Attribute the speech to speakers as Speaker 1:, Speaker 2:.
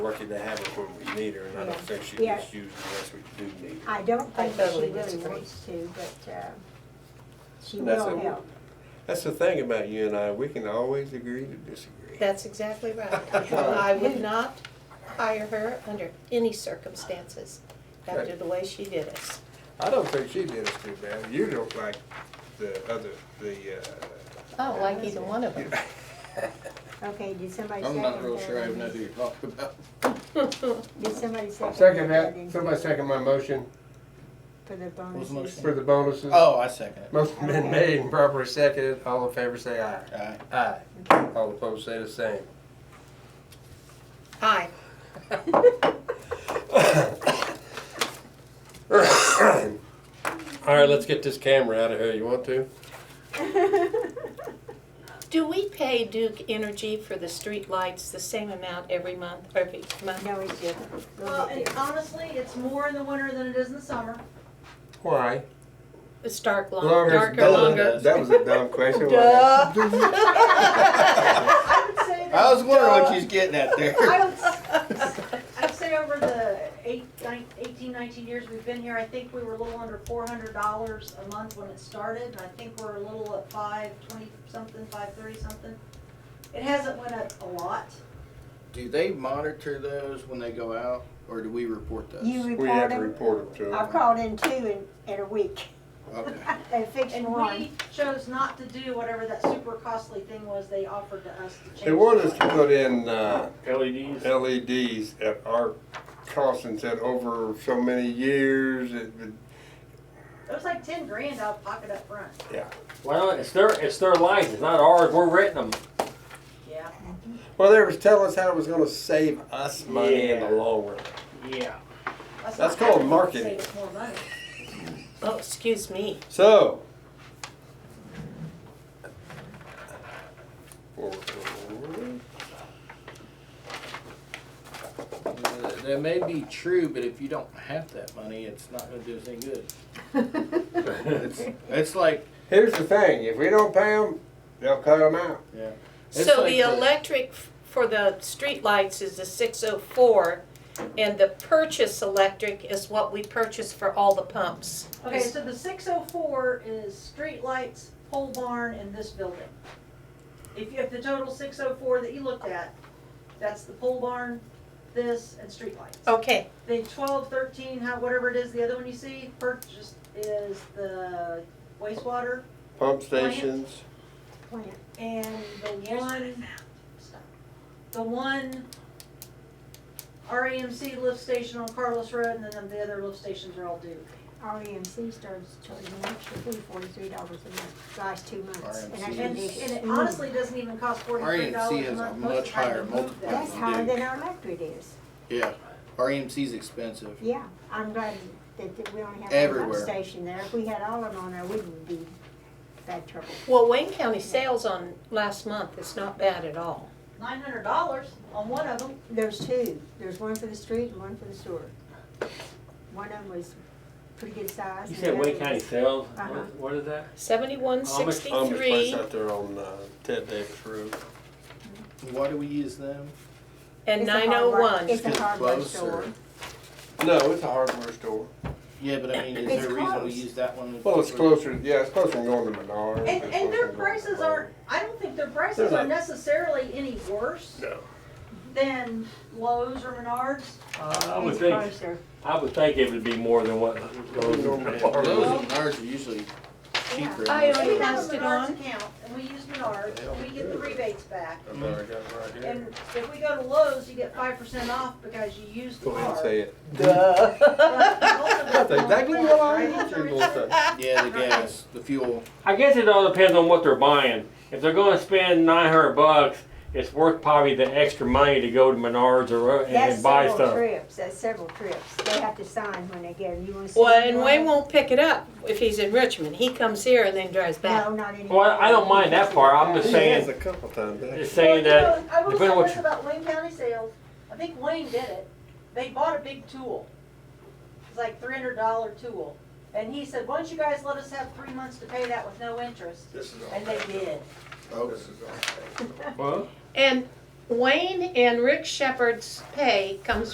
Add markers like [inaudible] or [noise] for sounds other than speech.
Speaker 1: Lucky to have her when we need her, and I don't think she
Speaker 2: Yeah.
Speaker 1: gets used unless we do need her.
Speaker 2: I don't
Speaker 3: I
Speaker 2: think that she
Speaker 3: totally
Speaker 2: really
Speaker 3: disagree.
Speaker 2: wants to, but uh, she
Speaker 1: And that's
Speaker 2: will
Speaker 1: it.
Speaker 2: help.
Speaker 1: That's the thing about you and I, we can always agree to disagree.
Speaker 3: That's exactly right. I would not hire her under any circumstances after the way she did us.
Speaker 1: I don't think she did us too bad. You don't like the other, the, uh,
Speaker 3: I
Speaker 2: Oh,
Speaker 3: don't Oh, like either one of them.
Speaker 1: [laughs]
Speaker 2: Okay, did somebody second
Speaker 4: I'm
Speaker 2: that?
Speaker 4: not real sure I have nothing to talk about.
Speaker 3: [laughs]
Speaker 2: Did somebody second?
Speaker 1: second that,
Speaker 2: in-
Speaker 1: somebody second my motion
Speaker 2: For the
Speaker 4: What's the
Speaker 2: bonuses?
Speaker 4: motion?
Speaker 1: for the bonuses.
Speaker 4: [laughs] Oh, I second it.
Speaker 1: Motion been made and properly seconded. All in favor say aye.
Speaker 2: [laughs]
Speaker 4: Aye.
Speaker 1: Aye. All opposed say the same.
Speaker 3: Aye.
Speaker 1: All right, let's get this camera out of here. You want to?
Speaker 3: Do we pay Duke Energy for the street lights the same amount every month, every
Speaker 2: [laughs]
Speaker 3: month?
Speaker 2: No, it's different. A little
Speaker 5: Well,
Speaker 2: bit
Speaker 5: and honestly, it's more in the winter than it is in the summer.
Speaker 1: Why?
Speaker 3: It's dark, long,
Speaker 1: Longer.
Speaker 3: darker, longer.
Speaker 1: That was a dumb
Speaker 3: [laughs]
Speaker 1: question. wasn't it?
Speaker 5: [laughs] I would say
Speaker 4: I
Speaker 5: that,
Speaker 4: was wondering what she's getting at there.
Speaker 5: I would, s- I'd say over the eight, nine, eighteen, nineteen years we've been here, I think we were a little under four hundred dollars a month when it started, and I think we're a little at five twenty something, five thirty something. It hasn't went up a lot.
Speaker 4: [laughs] Do they monitor those when they go out, or do we report those?
Speaker 2: You
Speaker 1: We have
Speaker 2: report
Speaker 1: to
Speaker 2: them?
Speaker 1: report them to
Speaker 2: I've
Speaker 1: them.
Speaker 2: called in two in, in a week.
Speaker 4: Okay.
Speaker 2: [laughs] They fixed
Speaker 5: And
Speaker 2: one.
Speaker 5: we
Speaker 2: [laughs]
Speaker 5: chose not to do whatever that super costly thing was they offered to us to change.
Speaker 1: They wanted
Speaker 5: the
Speaker 1: us to
Speaker 5: light.
Speaker 1: put in, uh,
Speaker 6: LEDs.
Speaker 1: LEDs at our cost and said over so many years, it, would-
Speaker 5: It was like ten grand out of pocket up front,
Speaker 6: Well, it's their it's their lights. It's not ours. We're renting them.
Speaker 5: yeah.
Speaker 1: well, they was telling us how it was gonna save us money in the
Speaker 6: Yeah.
Speaker 1: long run.
Speaker 6: Yeah.
Speaker 1: That's
Speaker 5: not-
Speaker 1: called marketing.
Speaker 5: Save us more money.
Speaker 3: Oh, excuse me.
Speaker 1: So.
Speaker 4: Uh, That- That may be true, but if you don't have that money, it's not gonna do us any good. It's, it's like,
Speaker 1: Here's the thing, if we don't pay them, they'll cut them out.
Speaker 4: It's
Speaker 3: So
Speaker 4: like
Speaker 3: the
Speaker 4: the-
Speaker 3: electric f- for the street lights is the six oh four, and the purchase electric is what we purchase for all the pumps.
Speaker 5: Okay, so the six oh four is street lights, pole barn, and this building. If you have the total six oh four that you looked at, that's the pole barn, this, and street lights.
Speaker 3: Okay,
Speaker 5: The twelve, thirteen, how, whatever it is, the other one you see, purchased is the wastewater,
Speaker 1: Pump stations,
Speaker 2: Plant.
Speaker 5: and the one, the one RAMC lift station on Carlos Road, and then the other lift stations are all due.
Speaker 2: REMC E starts charging an extra fee, forty-three dollars a month, last two
Speaker 1: E
Speaker 2: months. And I Mm.
Speaker 4: REMC.
Speaker 5: And, and
Speaker 2: think
Speaker 5: it
Speaker 2: it's-
Speaker 5: honestly doesn't even cost forty-three
Speaker 4: REMC
Speaker 5: dollars a
Speaker 4: has a
Speaker 5: month.
Speaker 4: much
Speaker 5: Most of the time
Speaker 4: higher
Speaker 5: they move
Speaker 4: multiplier.
Speaker 5: that.
Speaker 2: That's higher than our electric is.
Speaker 4: yeah, REMC's expensive.
Speaker 2: Yeah, I'm glad that, that we only have one
Speaker 4: Everywhere.
Speaker 2: pump station there. If we had all of them on there, we wouldn't be bad trouble.
Speaker 3: well, Wayne County sales on last month is not bad at all.
Speaker 5: Nine hundred dollars on one of them.
Speaker 2: There's two. There's one for the street and one for the sewer. One of them was pretty good size.
Speaker 6: You
Speaker 2: and
Speaker 6: said
Speaker 2: the
Speaker 6: Wayne
Speaker 2: other
Speaker 6: County
Speaker 2: was-
Speaker 6: sales.
Speaker 2: Uh-huh.
Speaker 6: What, what is that?
Speaker 3: Seventy-one
Speaker 1: Amish place
Speaker 3: sixty-three,
Speaker 1: out there on, uh, Ted Davis Road.
Speaker 4: Why do we use them?
Speaker 3: and
Speaker 2: It's a
Speaker 3: nine
Speaker 2: hardware-
Speaker 3: oh one.
Speaker 2: It's a
Speaker 4: It's
Speaker 2: hardware
Speaker 4: closer.
Speaker 2: store.
Speaker 1: No, it's a hardware store.
Speaker 4: Yeah, but I mean, is
Speaker 2: It's
Speaker 4: there a reason we
Speaker 2: close.
Speaker 4: use that one? in
Speaker 1: Well, it's
Speaker 4: particular?
Speaker 1: closer, yeah, it's closer than going to Menards.
Speaker 5: And,
Speaker 1: It's closer
Speaker 5: and their
Speaker 1: than going to
Speaker 5: prices
Speaker 1: Kroger.
Speaker 5: aren't, I don't think their
Speaker 1: They're
Speaker 5: prices
Speaker 1: not-
Speaker 5: are necessarily any worse
Speaker 1: No.
Speaker 5: than Lowe's or Menards.
Speaker 6: Uh, I would
Speaker 2: It's
Speaker 6: think.
Speaker 2: closer.
Speaker 6: I would think it would be more than what those
Speaker 4: Yeah,
Speaker 6: are.
Speaker 4: Those and ours are usually cheaper.
Speaker 3: I
Speaker 4: anyway.
Speaker 3: Don't
Speaker 5: We
Speaker 3: you
Speaker 5: have
Speaker 3: pass
Speaker 5: a
Speaker 3: it
Speaker 5: Menards
Speaker 3: on?
Speaker 5: account and we use Menards, we get the rebates back.
Speaker 1: I bet I got it right here.
Speaker 5: And if we go to Lowe's, you get five percent off because you use the
Speaker 1: Go ahead and
Speaker 5: card.
Speaker 1: say it.
Speaker 5: That's
Speaker 1: That's exactly what I want you to say.
Speaker 4: Yeah, the gas, the fuel.
Speaker 6: I guess it all depends on what they're buying. If they're going to spend nine hundred bucks, it's worth probably the extra money to go to Menards or uh, and,
Speaker 2: That's
Speaker 6: and buy
Speaker 2: several
Speaker 6: stuff.
Speaker 2: trips, that's several trips. They have to sign when they get them. You wanna see?
Speaker 3: Well, and
Speaker 2: one?
Speaker 3: Wayne won't pick it up if he's in Richmond. He comes here and then drives back.
Speaker 2: No, not anymore.
Speaker 6: Well, I don't mind that part. I'm just
Speaker 1: He
Speaker 6: saying,
Speaker 1: has a couple times, actually.
Speaker 6: just saying that.
Speaker 5: I will
Speaker 6: depending on
Speaker 5: say
Speaker 6: what
Speaker 5: this
Speaker 6: you-
Speaker 5: about Wayne County sales, I think Wayne did it, they bought a big tool. It's like three hundred dollar tool, and he said, why don't you guys let us have three months to pay that with no interest?
Speaker 1: This is all.
Speaker 5: And they did.
Speaker 4: Oh,
Speaker 1: This is all.
Speaker 6: Well,
Speaker 3: And Wayne and Rick Shepherd's pay comes